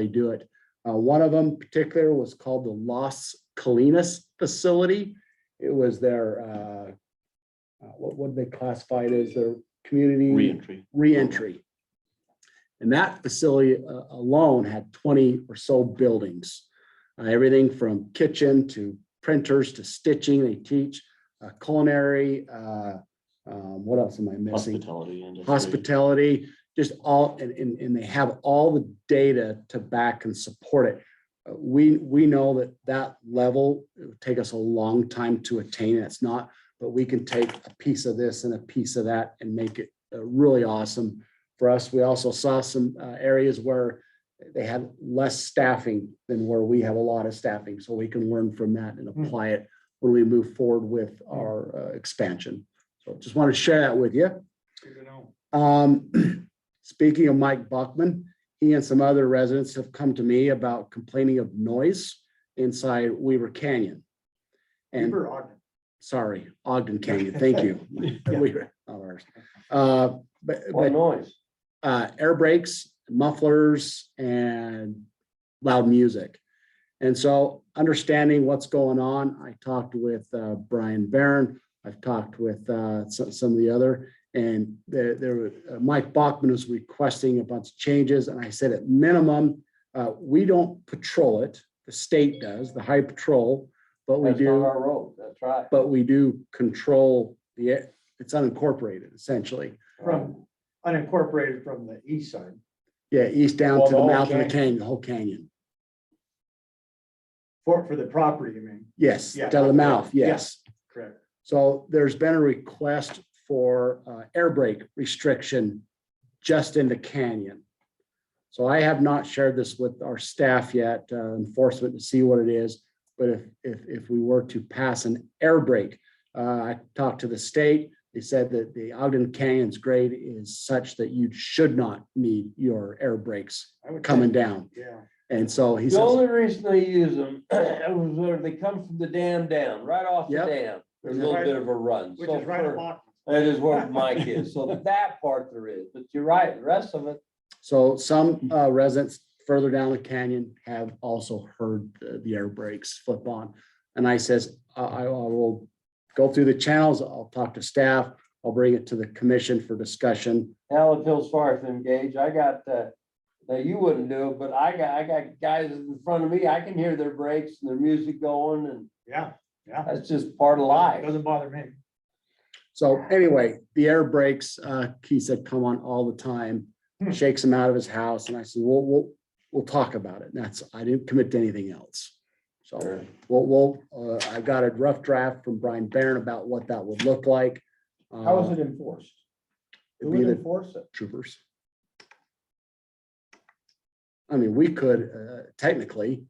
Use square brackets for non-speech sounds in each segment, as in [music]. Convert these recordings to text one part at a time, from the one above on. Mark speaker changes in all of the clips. Speaker 1: they do it. Uh, one of them in particular was called the Los Colinas Facility. It was their, uh, uh, what would they classify it as, their community?
Speaker 2: Reentry.
Speaker 1: reentry. And that facility uh, alone had twenty or so buildings. Uh, Everything from kitchen to printers to stitching. They teach uh, culinary. uh, um, What else am I missing?
Speaker 2: Hospitality. industry.
Speaker 1: Hospitality, just all, and, and, and they have all the data to back and support it. Uh, We, we know that that level, it would take us a long time to attain. It's not but we can take a piece of this and a piece of that and make it uh, really awesome for us. We also saw some uh, areas where they had less staffing than where we have a lot of staffing, so we can learn from that and apply it when we move forward with our uh, expansion. So just want to share that with you. Um, [clears throat] speaking of Mike Buckman, he and some other residents have come to me about complaining of noise inside Weaver Canyon. And
Speaker 3: Beaver Ogden.
Speaker 1: sorry, Ogden Canyon, thank you. [laughs] We were- not ours. Uh, But,
Speaker 4: What
Speaker 1: but
Speaker 4: noise?
Speaker 1: uh, air brakes, mufflers, and loud music. And so understanding what's going on, I talked with uh, Brian Barron, I've talked with uh, so- some of the other, and there, there, were- uh, Mike Bachman was requesting a bunch of changes, and I said at minimum, uh, we don't patrol it, the state does, the high patrol, but we
Speaker 4: That's
Speaker 1: do.
Speaker 4: not our road, that's right.
Speaker 1: but we do control the, it's unincorporated essentially.
Speaker 3: From unincorporated from the east side.
Speaker 1: Yeah, east down
Speaker 4: Well,
Speaker 1: to the
Speaker 4: the whole
Speaker 1: mouth of the
Speaker 4: canyon.
Speaker 1: canyon, the whole canyon.
Speaker 3: For, for the property, you mean,
Speaker 1: Yes,
Speaker 3: Yeah.
Speaker 1: down to the mouth,
Speaker 3: Yeah.
Speaker 1: yes.
Speaker 3: correct?
Speaker 1: So there's been a request for uh, air brake restriction just in the canyon. So I have not shared this with our staff yet, uh, enforcement to see what it is. But if, if, if we were to pass an air brake, uh, I talked to the state. They said that the Ogden Canyon's grade is such that you should not need your air brakes
Speaker 3: I would
Speaker 1: coming
Speaker 3: think,
Speaker 1: down.
Speaker 3: Yeah.
Speaker 1: And so he
Speaker 4: The
Speaker 1: says,
Speaker 4: only reason they use them [clears throat] was where they come from the dam down, right off the
Speaker 1: Yep.
Speaker 4: dam. There's a
Speaker 3: Which is
Speaker 4: little
Speaker 3: right-
Speaker 4: bit of a run.
Speaker 3: Which
Speaker 4: So
Speaker 3: is right
Speaker 4: for-
Speaker 3: along.
Speaker 4: That is
Speaker 3: [laughs]
Speaker 4: where Mike is. So that part there is, but you're right, the rest of it,
Speaker 1: so some
Speaker 4: Mm-hmm.
Speaker 1: uh, residents further down the canyon have also heard the, the air brakes flip on. And I says, I, I I will go through the channels. I'll talk to staff. I'll bring it to the commission for discussion.
Speaker 4: hell, it feels sorry for them, Gage. I got, uh, now you wouldn't do it, but I got, I got guys in front of me. I can hear their brakes and their music going and
Speaker 3: Yeah,
Speaker 4: that's just part of life.
Speaker 3: doesn't bother me.
Speaker 1: So anyway, the air brakes, uh, he said, come on all the time,
Speaker 3: Hmm.
Speaker 1: shakes him out of his house. And I said, we'll, we'll, we'll talk about it. And that's, I didn't commit to anything else. So.
Speaker 4: Sure.
Speaker 1: Well, well, uh, I got a rough draft from Brian Barron about what that would look like.
Speaker 4: How
Speaker 1: Uh,
Speaker 4: is it enforced? Who
Speaker 1: It'd be
Speaker 4: would
Speaker 1: the
Speaker 4: enforce it?
Speaker 1: troopers. I mean, we could, uh, technically,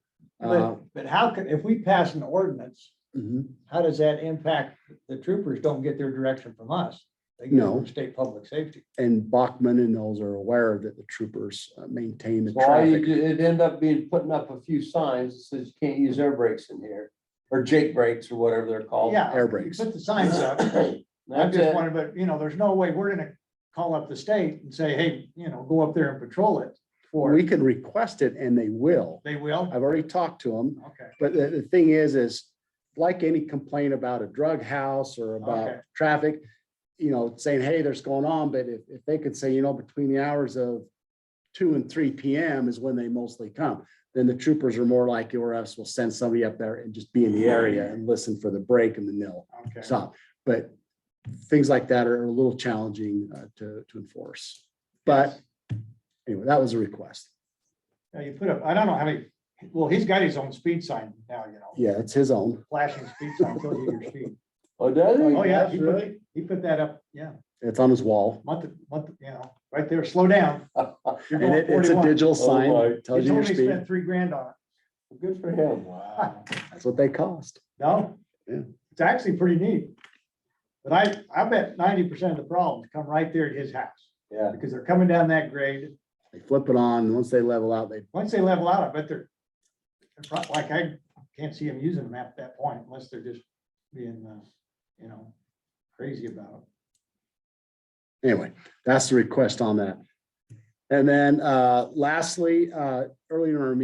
Speaker 1: uh,
Speaker 5: But, but how can, if we pass an ordinance,
Speaker 1: mhm,
Speaker 5: how does that impact, the troopers don't get their direction from us? They get it
Speaker 1: No.
Speaker 5: from state public safety.
Speaker 1: and Bachman and those are aware that the troopers uh, maintain the
Speaker 4: So all you
Speaker 1: traffic.
Speaker 4: do, it'd end up being putting up a few signs that says you can't use air brakes in here, or Jake brakes or whatever they're called.
Speaker 3: Yeah.
Speaker 1: air
Speaker 3: you
Speaker 1: brakes.
Speaker 3: Put the
Speaker 1: [coughs]
Speaker 3: signs up. I'm
Speaker 4: [coughs] That's
Speaker 3: just
Speaker 4: it.
Speaker 3: wondering, but you know, there's no way we're gonna call up the state and say, hey, you know, go up there and patrol it. For,
Speaker 1: We can request it and they will.
Speaker 3: they will?
Speaker 1: I've already talked to them,
Speaker 3: Okay,
Speaker 1: but the, the thing is, is like any complaint about a drug house or about
Speaker 3: Okay.
Speaker 1: traffic, you know, saying, hey, there's going on, but if, if they could say, you know, between the hours of two and three PM is when they mostly come, then the troopers are more likely, or else we'll send somebody up there and just be in the area and listen for the break and the nil
Speaker 3: okay.
Speaker 1: stop. But things like that are a little challenging uh, to, to enforce. But anyway, that was a request.
Speaker 3: Now you put up, I don't know how many, well, he's got his own speed sign now, you know,
Speaker 1: Yeah, it's his own.
Speaker 3: flashing speed sign tells you your
Speaker 1: [laughs]
Speaker 3: speed.
Speaker 4: Oh, does he?
Speaker 3: Oh, yeah,
Speaker 4: That's
Speaker 3: he put, he put that up, yeah,
Speaker 1: It's on his wall.
Speaker 3: month, month, you know, right there, slow down. You're
Speaker 1: [laughs] And
Speaker 3: going
Speaker 1: it- it's a
Speaker 3: 41.
Speaker 1: digital
Speaker 4: Oh,
Speaker 1: sign,
Speaker 4: my.
Speaker 1: It tells
Speaker 3: He's
Speaker 1: you your
Speaker 3: only
Speaker 1: speed.
Speaker 3: spent three grand on
Speaker 4: Good for him.
Speaker 3: it.
Speaker 4: Wow.
Speaker 1: That's what they cost.
Speaker 3: [laughs] No?
Speaker 1: Yeah.
Speaker 3: It's actually pretty neat. But I, I bet ninety percent of the problems come right there at his house,
Speaker 4: Yeah.
Speaker 3: because they're coming down that grade.
Speaker 1: They flip it on, and once they level out, they,
Speaker 3: Once they level out, I bet they're, they're prob- like, I can't see them using them at that point unless they're just being, uh, you know, crazy about
Speaker 1: anyway, that's the request on that. And then uh, lastly, uh, earlier in our